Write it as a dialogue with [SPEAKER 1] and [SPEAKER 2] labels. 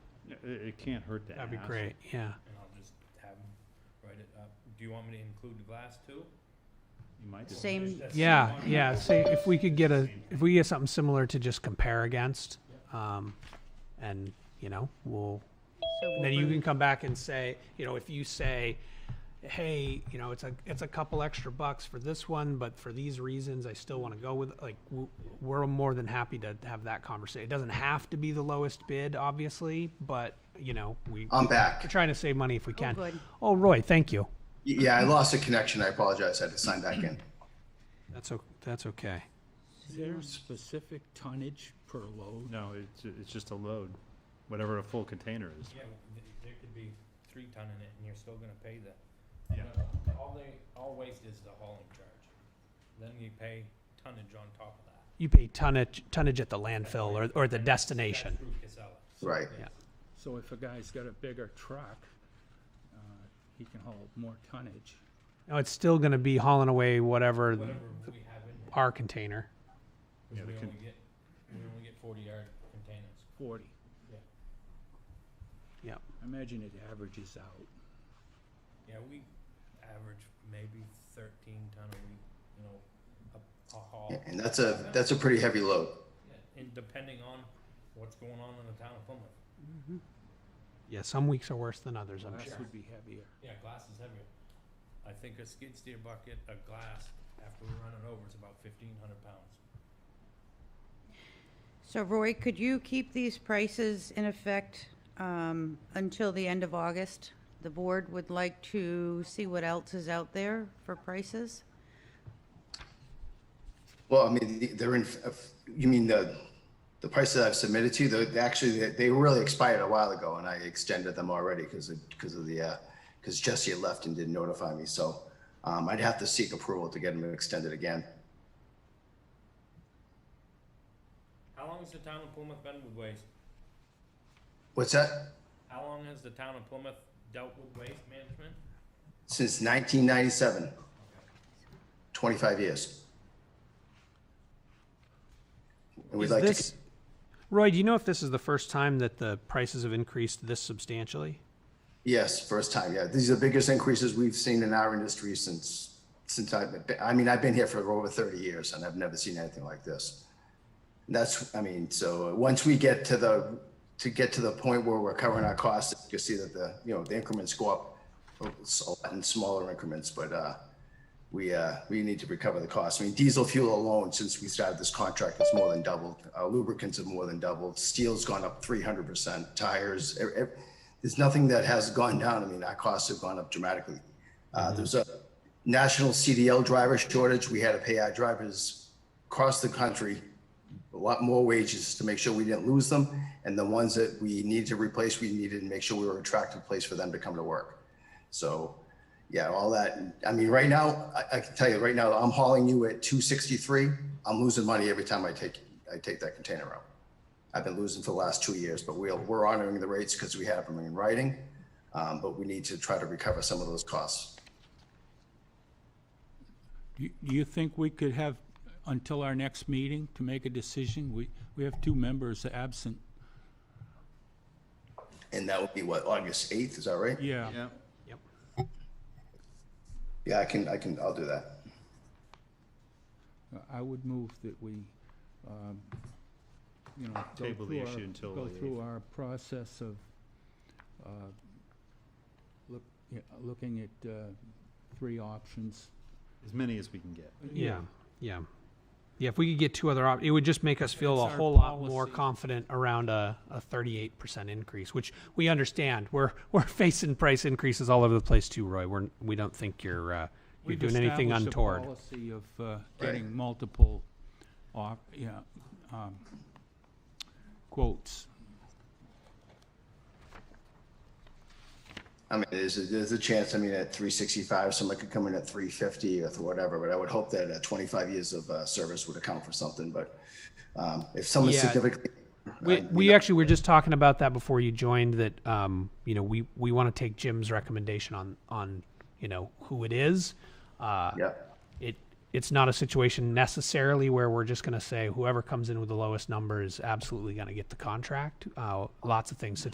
[SPEAKER 1] it, it can't hurt to ask.
[SPEAKER 2] That'd be great, yeah.
[SPEAKER 3] And I'll just have them write it up. Do you want me to include the glass too?
[SPEAKER 1] You might. be-
[SPEAKER 3] Is
[SPEAKER 4] Same,
[SPEAKER 3] that
[SPEAKER 2] Yeah,
[SPEAKER 3] someone-
[SPEAKER 2] yeah, see, if we could get a, if we get something similar to just compare against, um, and, you know, we'll,
[SPEAKER 4] so we'll
[SPEAKER 2] And then you
[SPEAKER 4] bring-
[SPEAKER 2] can come back and say, you know, if you say, hey, you know, it's a, it's a couple extra bucks for this one, but for these reasons, I still want to go with, like, w- we're more than happy to have that conversation. It doesn't have to be the lowest bid, obviously, but, you know, we,
[SPEAKER 5] I'm
[SPEAKER 2] we're
[SPEAKER 5] back.
[SPEAKER 2] trying to save money if we can.
[SPEAKER 4] good.
[SPEAKER 2] Oh, Roy, thank you.
[SPEAKER 5] Y- Yeah, I lost a connection. I apologize. I had to sign back in.
[SPEAKER 2] That's, o- that's okay.
[SPEAKER 6] Is there a specific tonnage per load?
[SPEAKER 1] No, it's, it's just a load, whatever a full container is.
[SPEAKER 3] Yeah, th- there could be three ton in it and you're still gonna pay the.
[SPEAKER 1] Yeah.
[SPEAKER 3] No, All they, all waste is the hauling charge. Then you pay tonnage on top of that.
[SPEAKER 2] You pay tonnage, tonnage at the landfill or, or the destination.
[SPEAKER 3] Through Casella.
[SPEAKER 5] Right.
[SPEAKER 6] So if a guy's got a bigger truck, uh, he can haul more tonnage.
[SPEAKER 2] No, it's still going to be hauling away whatever
[SPEAKER 3] Whatever we have in, there,
[SPEAKER 2] our container.
[SPEAKER 3] which
[SPEAKER 1] Yeah,
[SPEAKER 3] we
[SPEAKER 1] they can-
[SPEAKER 3] only get, we only get forty yard containers.
[SPEAKER 6] Forty.
[SPEAKER 3] Yeah.
[SPEAKER 2] Yeah.
[SPEAKER 6] I imagine it averages out.
[SPEAKER 3] Yeah, we average maybe thirteen ton a week, you know, a, a haul.
[SPEAKER 5] Yeah, and that's a that's a pretty heavy load.
[SPEAKER 3] Yeah, And depending on what's going on in the town of Plymouth.
[SPEAKER 2] Yeah, some weeks are worse than others, I'm
[SPEAKER 6] Glass
[SPEAKER 2] sure.
[SPEAKER 6] would be heavier.
[SPEAKER 3] Yeah, glass is heavier. I think a skid steer bucket of glass after we run it over is about fifteen hundred pounds.
[SPEAKER 4] So Roy, could you keep these prices in effect um, until the end of August? The board would like to see what else is out there for prices.
[SPEAKER 5] Well, I mean, the- they're in. f- You mean the the price that I've submitted to? The actually they- they really expired a while ago, and I extended them already because because of the because Jesse had left and didn't notify me. So um, I'd have to seek approval to get them extended again.
[SPEAKER 3] How long has the town of Plymouth been with waste?
[SPEAKER 5] What's that?
[SPEAKER 3] How long has the town of Plymouth dealt with waste management?
[SPEAKER 5] Since 1997, 25 years. And we'd
[SPEAKER 2] Is
[SPEAKER 5] like
[SPEAKER 2] this,
[SPEAKER 5] to.
[SPEAKER 2] Roy, do you know if this is the first time that the prices have increased this substantially?
[SPEAKER 5] Yes, first time, yeah. These are the biggest increases we've seen in our industry since, since I've been, I mean, I've been here for over 30 years and I've never seen anything like this. That's, I mean, so uh, once we get to the, to get to the point where we're covering our costs, you'll see that the, you know, the increments go up a lot in smaller increments, but, uh, we, uh, we need to recover the cost. I mean, diesel fuel alone, since we started this contract, it's more than doubled. Uh, lubricants have more than doubled. Steel's gone up three hundred percent. Tires, e- e- there's nothing that has gone down. I mean, our costs have gone up dramatically. Uh, there's a national CDL driver shortage. We had to pay our drivers across the country a lot more wages to make sure we didn't lose them. And the ones that we needed to replace, we needed to make sure we were an attractive place for them to come to work. So, yeah, all that. I mean, right now, I, I can tell you right now, I'm hauling you at two sixty-three. I'm losing money every time I take, I take that container out. I've been losing for the last two years, but we're, we're honoring the rates because we have them in writing. Um, but we need to try to recover some of those costs.
[SPEAKER 6] Do you- do you think we could have until our next meeting to make a decision? We, we have two members absent.
[SPEAKER 5] And that would be what, August eighth, is that right?
[SPEAKER 6] Yeah.
[SPEAKER 2] Yep.
[SPEAKER 5] Yeah, I can, I can, I'll do that.
[SPEAKER 6] I would move that we, um, you know, go
[SPEAKER 1] Table the
[SPEAKER 6] through
[SPEAKER 1] issue
[SPEAKER 6] our-
[SPEAKER 1] until
[SPEAKER 6] Go
[SPEAKER 1] the
[SPEAKER 6] through our process of, uh, look, yeah, looking at, uh, three options.
[SPEAKER 1] As many as we can get.
[SPEAKER 2] Yeah, yeah. Yeah, if we could get two other op, it would just make us feel a
[SPEAKER 6] That's our
[SPEAKER 2] whole lot more
[SPEAKER 6] policy.
[SPEAKER 2] confident around a, a thirty-eight percent increase, which we understand. We're, we're facing price increases all over the place too, Roy. We're, we don't think you're, uh, you're
[SPEAKER 6] We've
[SPEAKER 2] doing anything
[SPEAKER 6] established a
[SPEAKER 2] untoward.
[SPEAKER 6] Policy of, uh, getting multiple op, yeah, um, quotes.
[SPEAKER 5] I mean, there's, a- there's a chance, I mean, at three sixty-five, someone could come in at three fifty or th- whatever, but I would hope that uh, twenty-five years of, uh, service would account for something, but, um, if someone
[SPEAKER 2] Yeah.
[SPEAKER 5] significantly.
[SPEAKER 2] We,
[SPEAKER 5] uh,
[SPEAKER 2] we actually were just talking about that before you joined that um, you know we, we want to take Jim's recommendation on on you know who it is. Uh,
[SPEAKER 5] Yeah,
[SPEAKER 2] It it's not a situation necessarily where we're just going to say whoever comes in with the lowest number is absolutely going to get the contract. Uh, lots of things to